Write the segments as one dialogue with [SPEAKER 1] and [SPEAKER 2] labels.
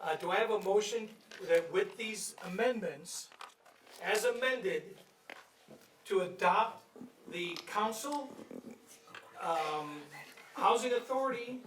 [SPEAKER 1] Uh, do I have a motion that with these amendments, as amended, to adopt the council, um, housing authority,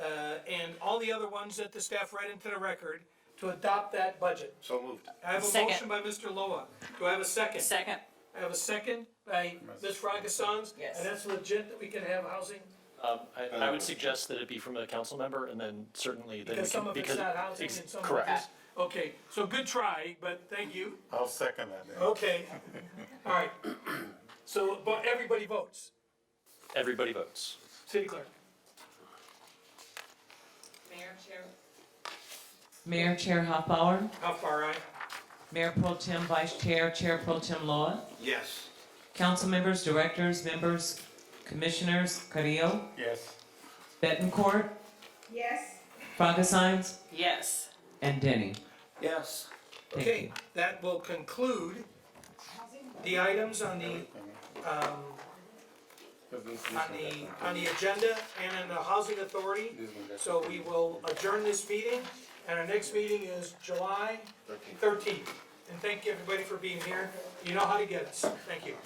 [SPEAKER 1] uh, and all the other ones that the staff read into the record, to adopt that budget?
[SPEAKER 2] So moved.
[SPEAKER 1] I have a motion
[SPEAKER 3] Second.
[SPEAKER 1] by Mr. Loa. Do I have a second?
[SPEAKER 3] Second,
[SPEAKER 1] I have a second by Ms. Francosan's?
[SPEAKER 3] Yes.
[SPEAKER 1] And that's legit that we can have housing?
[SPEAKER 4] Um, I, I would suggest that it be from a council member and then certainly then we
[SPEAKER 1] Because some
[SPEAKER 4] can,
[SPEAKER 1] of it's
[SPEAKER 4] because.
[SPEAKER 1] not housing and
[SPEAKER 4] ex-
[SPEAKER 1] some of
[SPEAKER 4] Correct.
[SPEAKER 1] it's. Okay, so good try, but thank you.
[SPEAKER 5] I'll second that.
[SPEAKER 1] Okay, all right. So, but everybody votes.
[SPEAKER 4] Everybody votes.
[SPEAKER 1] City clerk.
[SPEAKER 6] Mayor, Chair,
[SPEAKER 7] Mayor Chair Hoffbauer,
[SPEAKER 1] How far I?
[SPEAKER 7] Mayor Pro Tem Vice Chair, Chair Pro Tem Loa,
[SPEAKER 2] Yes.
[SPEAKER 7] council members, directors, members, commissioners, Carrillo,
[SPEAKER 5] Yes.
[SPEAKER 7] Betancourt,
[SPEAKER 6] yes.
[SPEAKER 7] Frogasines,
[SPEAKER 3] yes.
[SPEAKER 7] and Denny.
[SPEAKER 2] Yes.
[SPEAKER 7] Thank you.
[SPEAKER 1] Okay, that will conclude the items on the, um, on the, on the agenda and on the housing authority. So we will adjourn this meeting, and our next meeting is July thirteenth. And thank you, everybody, for being here. You know how to get us. Thank you.